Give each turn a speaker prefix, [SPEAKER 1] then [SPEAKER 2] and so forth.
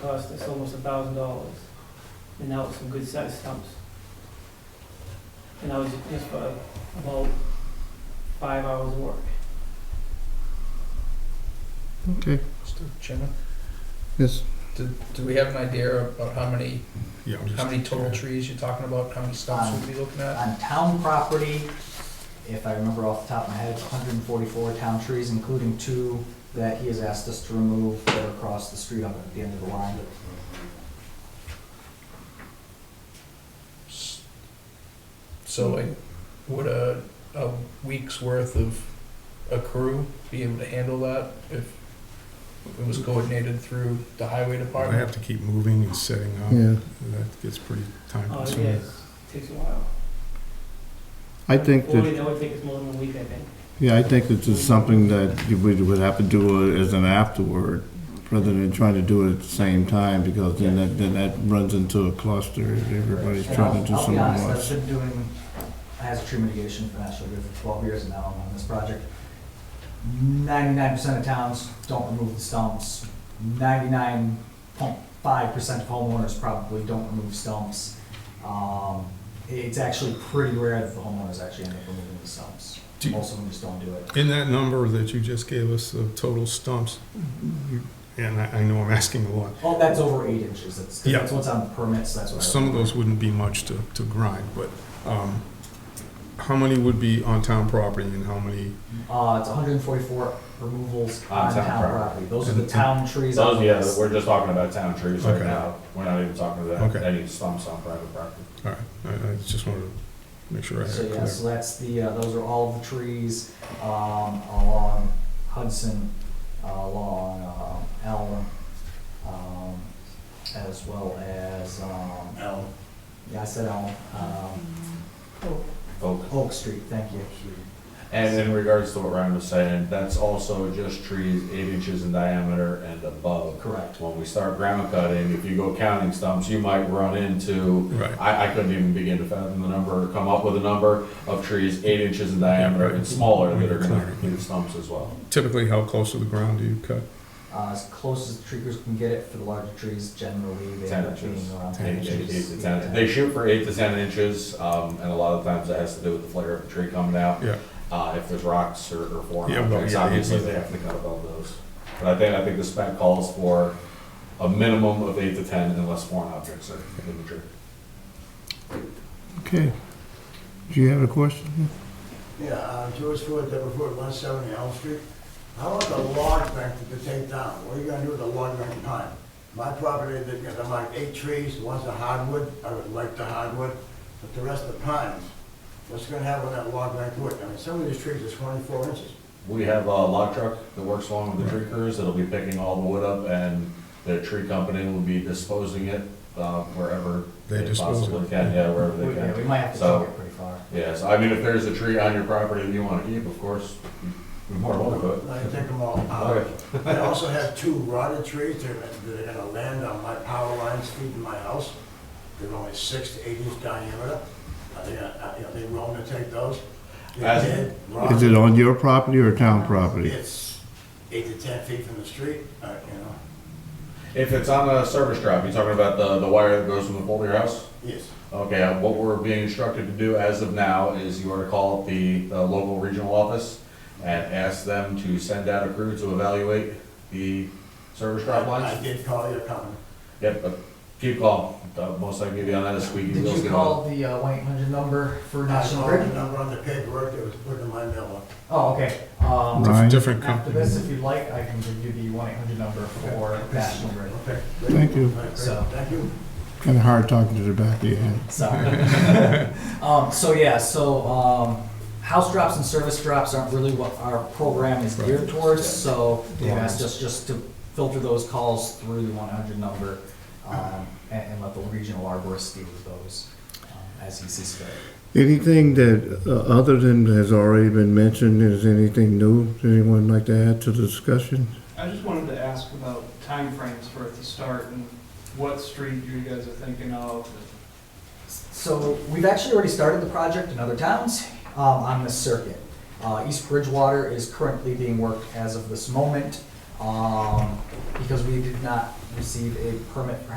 [SPEAKER 1] cost us almost a thousand dollars, and that was some good sized stumps. And that was just for about five hours of work.
[SPEAKER 2] Okay,
[SPEAKER 3] Mr. Chairman,
[SPEAKER 2] yes,
[SPEAKER 3] do, do we have an idea about how many,
[SPEAKER 4] Yeah, I'm
[SPEAKER 3] how
[SPEAKER 4] just,
[SPEAKER 3] many total trees you're talking about, how many stumps we'd be looking at?
[SPEAKER 5] On town property, if I remember off the top of my head, 144 town trees, including two that he has asked us to remove that are across the street on the- at the end of the line.
[SPEAKER 3] So like, would a, a week's worth of a crew be able to handle that if it was coordinated through the highway
[SPEAKER 4] I
[SPEAKER 3] department?
[SPEAKER 4] have to keep moving and setting up.
[SPEAKER 2] yeah.
[SPEAKER 4] That gets pretty time
[SPEAKER 1] Oh, yeah,
[SPEAKER 4] consuming.
[SPEAKER 1] it takes a while.
[SPEAKER 2] I think
[SPEAKER 1] Forty,
[SPEAKER 2] that,
[SPEAKER 1] that would take us more than a week, I think.
[SPEAKER 2] yeah, I think that it's something that we would have to do as an afterward, rather than trying to do it at the same time, because then that, then that runs into a cluster, if everybody's
[SPEAKER 5] And
[SPEAKER 2] trying to do
[SPEAKER 5] I'll-
[SPEAKER 2] something
[SPEAKER 5] I'll be
[SPEAKER 2] else.
[SPEAKER 5] honest, I've been doing hazard tree mitigation for National Grid for 12 years now I'm on this project. 99% of towns don't remove the stumps. 99.5% of homeowners probably don't remove stumps. Um, It's actually pretty rare that the homeowners actually end up removing the stumps.
[SPEAKER 4] Do you-
[SPEAKER 5] Most of them just don't do it.
[SPEAKER 4] In that number that you just gave us of total stumps, you- and I, I know I'm asking a lot,
[SPEAKER 5] Oh, that's over eight inches. That's, 'cause
[SPEAKER 4] Yeah.
[SPEAKER 5] that's what's on the permits, that's what I.
[SPEAKER 4] some of those wouldn't be much to, to grind, but, um, how many would be on town property and how many?
[SPEAKER 5] Uh, it's hundred and forty-four removals on town property. Those are the
[SPEAKER 4] And-
[SPEAKER 5] town trees. on
[SPEAKER 6] Those,
[SPEAKER 5] the
[SPEAKER 6] yeah,
[SPEAKER 5] list.
[SPEAKER 6] we're just talking about town trees right
[SPEAKER 4] Okay.
[SPEAKER 6] now. We're not even talking about
[SPEAKER 4] Okay.
[SPEAKER 6] any stumps on private property.
[SPEAKER 4] All right, I, I just wanted to make sure I
[SPEAKER 5] So
[SPEAKER 4] had it
[SPEAKER 5] yeah,
[SPEAKER 4] clear.
[SPEAKER 5] so that's the, uh, those are all of the trees, um, along Hudson, uh, along, um, Elm, um, as well as, um,
[SPEAKER 6] No.
[SPEAKER 5] yeah, I said Elm, um, Oak Street, thank you.
[SPEAKER 6] And in regards to what Ryan was saying, that's also just trees eight inches in diameter and above.
[SPEAKER 5] Correct.
[SPEAKER 6] When we start ground cutting, if you go counting stumps, you might run into,
[SPEAKER 4] Right.
[SPEAKER 6] I, I couldn't even begin to fathom the number, or come up with a number of trees eight inches in diameter and smaller that are gonna include stumps as well.
[SPEAKER 4] Typically, how close to the ground do you cut?
[SPEAKER 5] Uh, as close as the tree crews can get it for the larger trees, generally, they end up
[SPEAKER 6] 10 inches.
[SPEAKER 5] being around ten
[SPEAKER 6] Eight eight- eight
[SPEAKER 5] inches.
[SPEAKER 6] to ten,
[SPEAKER 5] Yeah.
[SPEAKER 6] they shoot for eight to ten inches, um, and a lot of times that has to do with the flare of the tree coming out.
[SPEAKER 4] Yeah,
[SPEAKER 6] Uh, if there's rocks or, or foreign
[SPEAKER 4] Yeah, well,
[SPEAKER 6] objects,
[SPEAKER 4] yeah,
[SPEAKER 6] obviously
[SPEAKER 4] yeah.
[SPEAKER 6] they have to cut above those. But I think, I think the spec calls for a minimum of eight to ten unless foreign objects are in the tree.
[SPEAKER 2] Okay. Do you have a question?
[SPEAKER 7] Yeah, uh, George Ford, Deborah Ford, one seventy Elm Street. How about the log bank that you take down? What are you gonna do with the log bank pile? My property, they've got about eight trees, one's a hardwood, I would like the hardwood, but the rest are pines. What's gonna happen with that log bank wood? I mean, some of these trees are twenty-four inches.
[SPEAKER 6] We have a log truck that works along with the tree crews that'll be picking all the wood up and the tree company will be disposing it, uh, wherever
[SPEAKER 4] They
[SPEAKER 6] they
[SPEAKER 4] dispose of
[SPEAKER 6] possibly
[SPEAKER 4] it.
[SPEAKER 6] can, yeah, wherever
[SPEAKER 5] We-
[SPEAKER 6] they
[SPEAKER 5] yeah, we
[SPEAKER 6] can.
[SPEAKER 5] might have to
[SPEAKER 6] So-
[SPEAKER 5] take it pretty far.
[SPEAKER 6] Yeah, so I mean, if there's a tree on your property that you wanna keep, of course, you're more than welcome to.
[SPEAKER 7] I take them all out.
[SPEAKER 6] Okay.
[SPEAKER 7] I also have two rotted trees that are, that are gonna land on my power lines feeding my house. They're only six to eight inch diameter. Are they, gonna- uh, you know, they willing to take those? They're
[SPEAKER 6] As-
[SPEAKER 7] dead,
[SPEAKER 2] Is it
[SPEAKER 7] rotted.
[SPEAKER 2] on your property or town property?
[SPEAKER 7] It's eight to ten feet from the street, uh, you know,
[SPEAKER 6] If it's on a service drop, you're talking about the, the wire that goes from the pole to your house?
[SPEAKER 7] yes.
[SPEAKER 6] Okay, uh, what we're being instructed to do as of now is you are to call up the, the local regional office and ask them to send out a crew to evaluate the service drop
[SPEAKER 7] I I
[SPEAKER 6] lines.
[SPEAKER 7] did call your company.
[SPEAKER 6] Yep, but keep calling, Uh, most I can give you on that is squeaky wheels
[SPEAKER 5] Did you
[SPEAKER 6] get on.
[SPEAKER 5] call the one eight hundred number for
[SPEAKER 7] I
[SPEAKER 5] National
[SPEAKER 7] called the
[SPEAKER 5] Grid?
[SPEAKER 7] number on the paperwork that was put in my mailbox.
[SPEAKER 5] Oh, okay. Um,
[SPEAKER 2] Ryan?
[SPEAKER 4] different
[SPEAKER 5] After
[SPEAKER 4] company.
[SPEAKER 5] this, if you'd like, I can give you the one eight hundred number for National Grid.
[SPEAKER 7] Okay.
[SPEAKER 2] Thank you.
[SPEAKER 7] All right, great.
[SPEAKER 5] So-
[SPEAKER 7] Thank you.
[SPEAKER 2] Kind of hard talking to the back of your head.
[SPEAKER 5] Sorry. um, so yeah, so um, house drops and service drops aren't really what our program is geared towards. So they've asked us just to filter those calls through the one hundred number um, and, and let the regional arborist deal with those um, as he sees fit.
[SPEAKER 2] Anything that, uh, other than has already been mentioned, is anything new? Does anyone like to add to the discussion?
[SPEAKER 8] I just wanted to ask about timeframes for it to start and what street you guys are thinking of.
[SPEAKER 5] So we've actually already started the project in other towns um, on this circuit. Uh, East Bridgewater is currently being worked as of this moment um, because we did not receive a permit for